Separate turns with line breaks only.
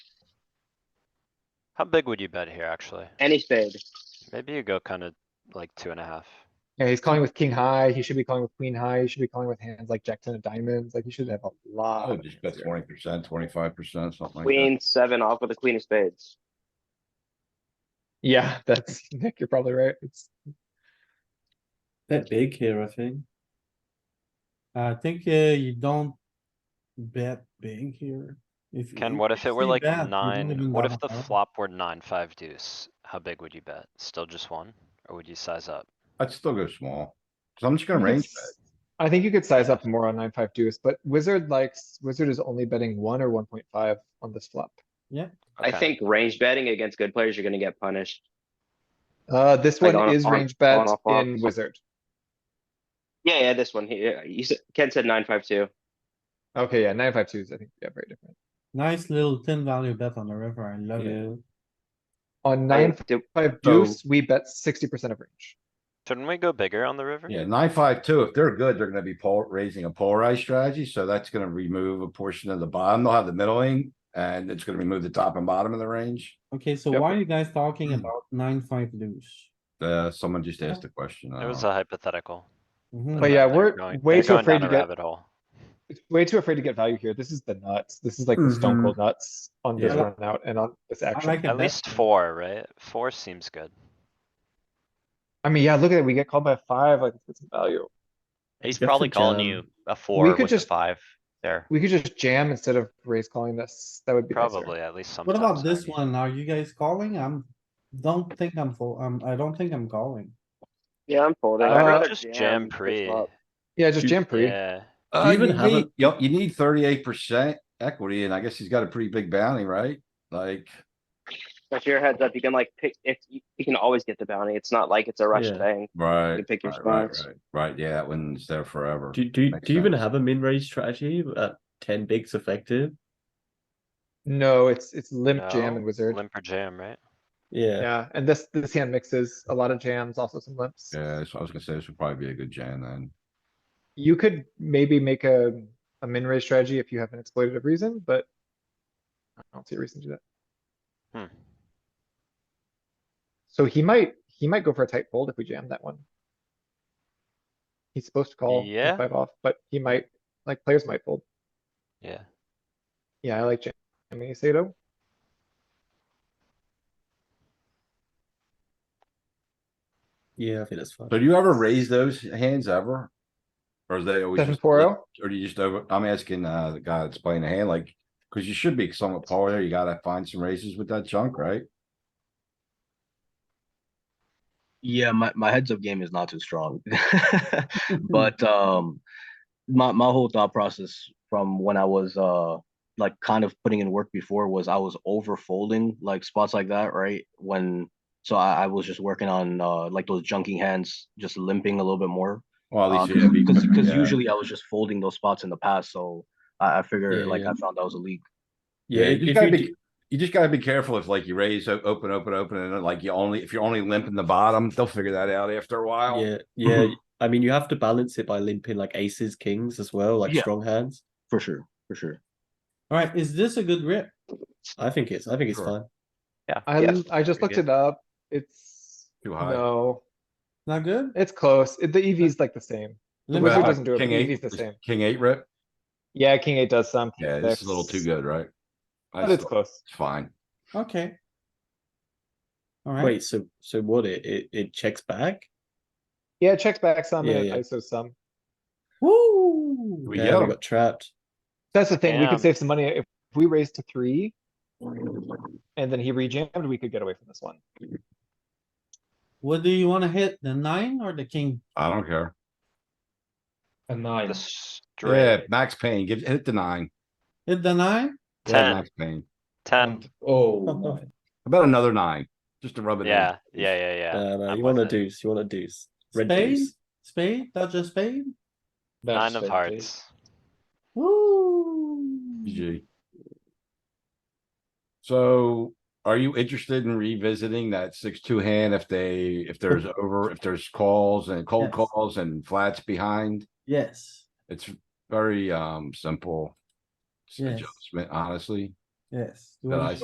How big would you bet here, actually?
Any spade.
Maybe you go kinda like two and a half.
Yeah, he's calling with king high, he should be calling with queen high, he should be calling with hands like jack ten of diamonds, like he should have a
I
lot.
would
of
just
hands
bet
here.
twenty percent, twenty-five percent, something like
Queen seven off with a queen of spades.
Yeah, that's, Nick, you're probably right, it's,
Bet big here, I think.
I think uh, you don't bet big here. If-
Ken, what if it were
you
like
bet, you don't
nine,
even
what
wanna
if the
bet.
flop were nine, five deuce? How big would you bet? Still just one? Or would you size up?
that. I'd still go small. So I'm just gonna
You could
range
s- I think you could size up more on nine, five deuce, but wizard likes, wizard is only betting one or one point five on this flop.
I
Okay.
think range betting against good players, you're gonna get punished.
Uh, this
Like
one
on-
is
on-
range bet
on off flop.
in wizard.
Yeah, yeah, this one here. You said, Ken said nine, five, two.
Okay, yeah, nine, five twos, I think, yeah, very different.
Nice little thin value bet on the river. I love it.
Yeah,
On nine,
Did-
five
So-
deuce, we bet sixty percent of range.
Shouldn't we go bigger on the river?
Yeah, nine, five, two. If they're good, they're gonna be pol raising a polarized strategy, so that's gonna remove a portion of the bottom. They'll have the middling. And it's gonna remove the top and bottom of the range.
Okay, so
Yep.
why are you guys talking
Hmm.
about nine, five deuce?
Uh, someone just asked a question. I
It was
don't-
a hypothetical.
Mhm.
Mm, But yeah,
They're
we're
going-
way
they're
too
going
afraid
down
to
a
get,
Rabbit hole.
way too afraid to get value here. This is the nuts. This is like the stone
Mhm.
cold nuts on this
Mm-hmm. Yeah.
run out and on this
I like
action.
it
At
bet.
least four, right? Four seems good.
I mean, yeah, look at it. We get called by five, like it's some value.
He's
That's a
probably calling
jam.
you a four
could
with a
just-
five there.
We could just jam instead of raise calling this. That would be nicer.
Probably, at least
What
sometimes.
about this
maybe.
one? Are you guys calling? I'm, don't think I'm full, um, I don't think I'm calling.
Yeah, I'm folding.
Uh,
I'd rather
just jam
than
pre.
flop.
Yeah, just
You-
jam pre.
Yeah,
Uh,
even
you
have a-
need, yup, you need thirty-eight percent equity, and I guess he's got a pretty big bounty, right? Like,
But your heads up, you can like pick, if, you you can always get the bounty. It's not like it's a rush
Yeah.
thing.
right.
You pick your
right, right,
spots.
right, Right, yeah, that one's there forever.
do, do,
Makes
do you even
sense.
have a min range strategy at ten bigs effective?
No, it's, it's limp jam
No,
and wizard.
limp or jam, right?
Yeah,
Yeah, and this, this hand mixes a lot of jams, also some limps.
Yeah, so I was gonna say this would probably be a good jam then.
You could maybe make a, a min raise strategy if you have an exploitative reason, but I don't see a reason to do that.
Hmm.
So he might, he might go for a tight fold if we jam that one. He's supposed to call king
Yeah.
five off, but he might, like players might fold.
Yeah.
Yeah, I like jamming Sato.
yeah, I think that's fine.
So do you ever raise those hands ever? Or is they always?
Seven
just
four
flip?
oh.
Or do you just over, I'm asking, uh, the guy that's playing the hand, like, cause you should be somewhat polar, you gotta find some raises with that junk, right?
Yeah, my, my heads up game is not too strong. but um my my whole thought process from when I was uh like kind of putting in work before was I was over folding like spots like that, right? When so I, I was just working on uh like those junking hands, just limping a little bit more.
Well, at least. you
Because
gotta be-
because
yeah.
usually I was just folding those spots in the past, so I, I figure
Yeah,
like
yeah.
I found that was a leak.
Yeah,
Yeah,
you just
if
gotta
you,
be,
do-
you just gotta be careful if like you raise, o- open, open, open, and then, like you only, if you're only limping the bottom, they'll figure that out after a while.
yeah, yeah, I mean, you have to balance it by limping like aces, kings as well, like
Yeah.
strong hands.
For sure, for sure.
Alright, is this a good rip?
I think it's, I think it's
Sure.
fine.
Yeah.
I,
yeah.
l- I just
very
looked
good.
it up. It's,
Too high.
no,
Not good?
it's close. It- The EV's like the same. The
Limp
Well,
wizard
or-
I-
doesn't do it,
King
but
eight
he's the
is-
same.
King eight rip?
Yeah, king eight does some. king
Yeah, this is a little too
six,
good, right? I
But it's
still-
close.
It's fine.
Okay. Alright,
Wait, so, so what, it, it, it checks back?
Yeah, it checks back some
Yeah,
and it
yeah.
ISOs some.
woo!
We
Yeah, we
go.
got trapped.
That's the thing, we
Damn.
could save some money if we raised to three. And then he rejammed, we could get away from this one.
What do you wanna hit? The nine or the king?
I don't care.
A nine.
The straight.
Yeah, max pain, give, hit the nine.
Hit the nine?
Yeah,
Ten.
max pain.
Ten.
Uh,
Oh
How About another nine, just to rub it in.
Yeah, yeah, yeah, yeah.
No, no,
I'm
uh, you
with
want a
it.
deuce, you want a deuce. Red
Spade?
deuce.
Spade, touch a spade?
Nine of hearts.
Woo!
GG. So are you interested in revisiting that six-two hand if they, if there's over, if there's calls and cold
Yes.
calls and flats behind?
Yes,
It's very, um, simple. It's
Yes.
Adjustment, honestly.
yes. You
That
wanna
I